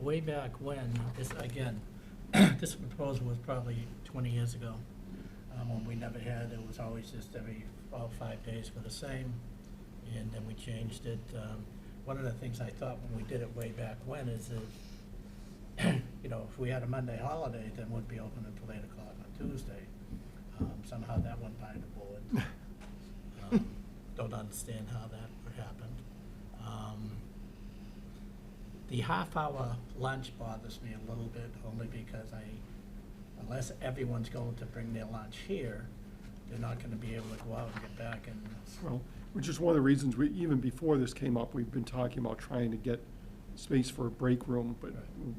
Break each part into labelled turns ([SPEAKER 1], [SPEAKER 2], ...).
[SPEAKER 1] way back when, this, again, this proposal was probably twenty years ago, um, when we never had, it was always just every, all five days were the same, and then we changed it. Um, One of the things I thought when we did it way back when is that, you know, if we had a Monday holiday, then we'd be open until eight o'clock on Tuesday. Um, Somehow that went by the board. Um, Don't understand how that happened. Um, The half-hour lunch bothers me a little bit, only because I, unless everyone's going to bring their lunch here, they're not gonna be able to go out and get back and,
[SPEAKER 2] Well, which is one of the reasons we, even before this came up, we've been talking about trying to get space for a break room, but it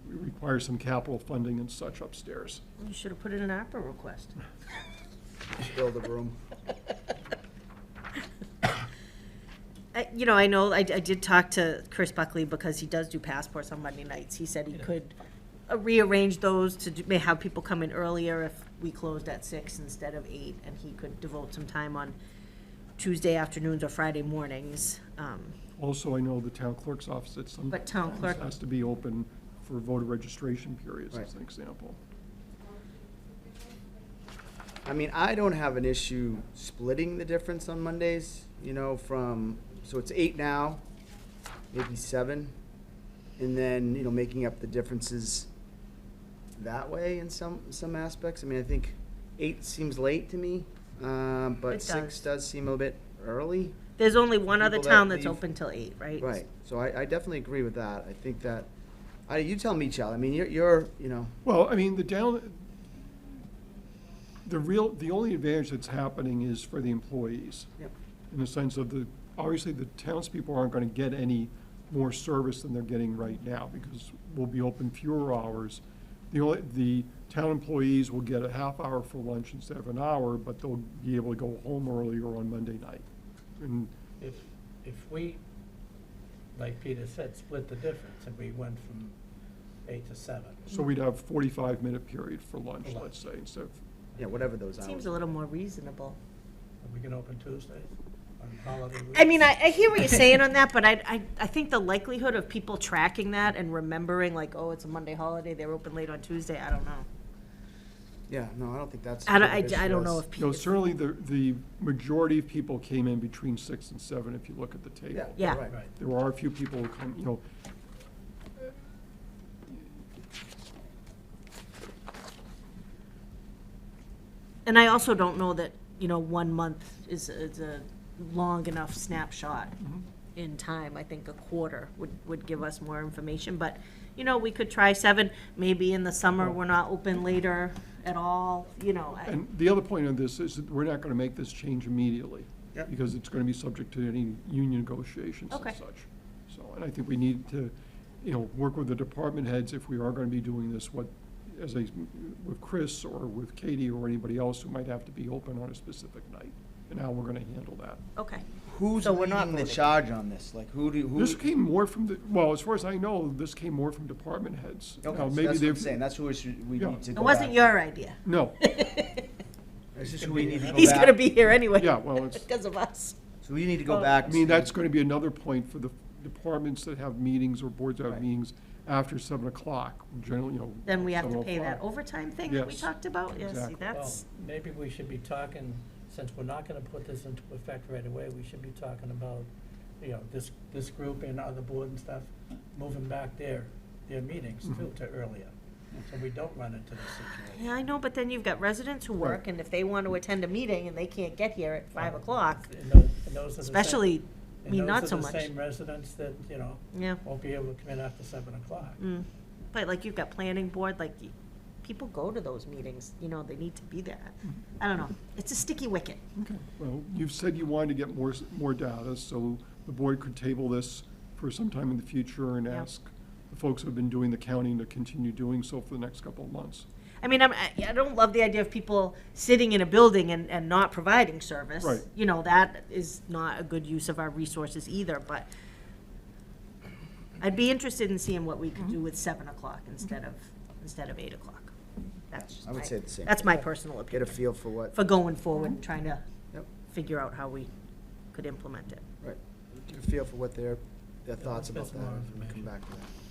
[SPEAKER 2] requires some capital funding and such upstairs.
[SPEAKER 3] You should have put in an opera request.
[SPEAKER 4] Fill the room.
[SPEAKER 3] I- You know, I know, I, I did talk to Chris Buckley because he does do passports on Monday nights. He said he could uh, rearrange those to, do- may have people come in earlier if we closed at six instead of eight, and he could devote some time on Tuesday afternoons or Friday mornings. Um,
[SPEAKER 2] Also, I know the town clerk's office at some.
[SPEAKER 3] But town
[SPEAKER 2] times
[SPEAKER 3] clerk-
[SPEAKER 2] Has to be open for voter registration periods, as
[SPEAKER 4] Right.
[SPEAKER 2] an example.
[SPEAKER 4] I mean, I don't have an issue splitting the difference on Mondays, you know, from, so it's eight now, maybe seven. And then, you know, making up the differences that way in some, some aspects. I mean, I think eight seems late to me, um,
[SPEAKER 3] It
[SPEAKER 4] but six
[SPEAKER 3] does.
[SPEAKER 4] does seem a little bit early.
[SPEAKER 3] There's only one other
[SPEAKER 4] People that
[SPEAKER 3] town that's
[SPEAKER 4] leave-
[SPEAKER 3] open till eight, right?
[SPEAKER 4] Right, so I, I definitely agree with that. I think that, I, you tell me, Chal, I mean, you're, you're, you know,
[SPEAKER 2] Well, I mean, the down, the real, the only advantage that's happening is for the employees.
[SPEAKER 4] Yep.
[SPEAKER 2] In the sense of the, obviously, the townspeople aren't gonna get any more service than they're getting right now, because we'll be open fewer hours. The only, the town employees will get a half hour for lunch instead of an hour, but they'll be able to go home earlier on Monday night. And,
[SPEAKER 1] if, if we, like Peter said, split the difference, and we went from eight to seven.
[SPEAKER 2] so we'd have forty-five minute period for lunch,
[SPEAKER 1] Lunch.
[SPEAKER 2] let's say, instead of,
[SPEAKER 4] yeah, whatever those hours.
[SPEAKER 3] Seems a little more reasonable.
[SPEAKER 1] Are we gonna open Tuesdays on holiday week?
[SPEAKER 3] I mean, I, I hear what you're saying on that, but I, I, I think the likelihood of people tracking that and remembering like, oh, it's a Monday holiday, they're open late on Tuesday, I don't know.
[SPEAKER 4] Yeah, no, I don't think that's.
[SPEAKER 3] I don't,
[SPEAKER 4] what the
[SPEAKER 3] I, I
[SPEAKER 4] issue
[SPEAKER 3] don't know
[SPEAKER 4] is.
[SPEAKER 2] No,
[SPEAKER 3] if people.
[SPEAKER 2] certainly the, the majority of people came in between six and seven, if you look at the
[SPEAKER 4] Yeah.
[SPEAKER 2] table.
[SPEAKER 3] Yeah.
[SPEAKER 4] right.
[SPEAKER 1] Right,
[SPEAKER 2] There are a few people who come, you know.
[SPEAKER 3] And I also don't know that, you know, one month is, is a long enough snapshot in time. I think a quarter would, would give us more information, but, you know, we could try seven, maybe in the summer, we're not open later at all, you
[SPEAKER 4] Oh,
[SPEAKER 3] know. I-
[SPEAKER 2] And the other point of this is that we're not gonna make this change immediately.
[SPEAKER 4] Yep.
[SPEAKER 2] Because it's gonna be subject to any union negotiations and
[SPEAKER 3] Okay.
[SPEAKER 2] such. So, and I think we need to, you know, work with the department heads if we are gonna be doing this, what, as a, with Chris or with Katie or anybody else who might have to be open on a specific night, and how we're gonna handle that.
[SPEAKER 3] Okay,
[SPEAKER 4] Who's
[SPEAKER 3] So we're not
[SPEAKER 4] leading the
[SPEAKER 3] voting.
[SPEAKER 4] charge on this? Like, who do, who?
[SPEAKER 2] This came more from the, well, as far as I know, this came more from department heads.
[SPEAKER 4] Okay,
[SPEAKER 2] Now,
[SPEAKER 4] so
[SPEAKER 2] maybe
[SPEAKER 4] that's what I'm
[SPEAKER 2] they've-
[SPEAKER 4] saying, that's who we should, we
[SPEAKER 2] Yeah.
[SPEAKER 4] need to
[SPEAKER 3] it
[SPEAKER 4] go
[SPEAKER 3] wasn't
[SPEAKER 4] back.
[SPEAKER 3] your idea.
[SPEAKER 2] No,
[SPEAKER 4] This is who we need to go back.
[SPEAKER 3] He's gonna be here anyway.
[SPEAKER 2] yeah, well, it's,
[SPEAKER 3] Because of us.
[SPEAKER 4] So we need to go
[SPEAKER 3] Oh.
[SPEAKER 4] back.
[SPEAKER 2] I mean,
[SPEAKER 4] to-
[SPEAKER 2] that's going to be another point for the departments that have meetings or boards that have
[SPEAKER 4] Right.
[SPEAKER 2] meetings after seven o'clock, generally, you know.
[SPEAKER 3] Then we have to
[SPEAKER 2] 7:05.
[SPEAKER 3] pay that overtime thing that we
[SPEAKER 2] Yes.
[SPEAKER 3] talked about? Yeah, see,
[SPEAKER 2] Exactly.
[SPEAKER 1] well,
[SPEAKER 3] that's,
[SPEAKER 1] maybe we should be talking, since we're not gonna put this into effect right away, we should be talking about, you know, this, this group and other board and stuff, moving back their, their meetings too, to earlier, so we don't run into this situation.
[SPEAKER 3] yeah, I know, but then you've got residents who work,
[SPEAKER 2] Right.
[SPEAKER 3] and if they want to attend a meeting and they can't get here at five o'clock,
[SPEAKER 1] And tho- and those are the same-
[SPEAKER 3] especially, I
[SPEAKER 1] and
[SPEAKER 3] mean,
[SPEAKER 1] those are
[SPEAKER 3] not so
[SPEAKER 1] the
[SPEAKER 3] much.
[SPEAKER 1] Same residents that, you know,
[SPEAKER 3] Yeah,
[SPEAKER 1] won't be able to come in after seven o'clock.
[SPEAKER 3] mm. But like, you've got planning board, like, y- people go to those meetings, you know, they need to be there.
[SPEAKER 2] Mm-hmm.
[SPEAKER 3] I don't know, it's a sticky wicket.
[SPEAKER 2] Okay, well, you've said you wanted to get more, s- more data, so the board could table this for some time in the future and
[SPEAKER 3] Yeah.
[SPEAKER 2] ask the folks who have been doing the counting to continue doing so for the next couple of months.
[SPEAKER 3] I mean, I'm, I I don't love the idea of people sitting in a building and, and not providing service.
[SPEAKER 2] Right.
[SPEAKER 3] You know, that is not a good use of our resources either, but I'd be interested in seeing what we could do with seven o'clock instead of, instead of eight o'clock. That's just
[SPEAKER 4] I would
[SPEAKER 3] my-
[SPEAKER 4] say the same.
[SPEAKER 3] That's my personal
[SPEAKER 4] Get a
[SPEAKER 3] opinion,
[SPEAKER 4] feel for what,
[SPEAKER 3] for going forward and trying to
[SPEAKER 4] Yep.
[SPEAKER 3] figure out how we could implement it.
[SPEAKER 4] right, get a feel for what their, their thoughts about
[SPEAKER 1] that's
[SPEAKER 4] that.
[SPEAKER 1] more
[SPEAKER 4] and we
[SPEAKER 1] information.
[SPEAKER 4] Come back to that.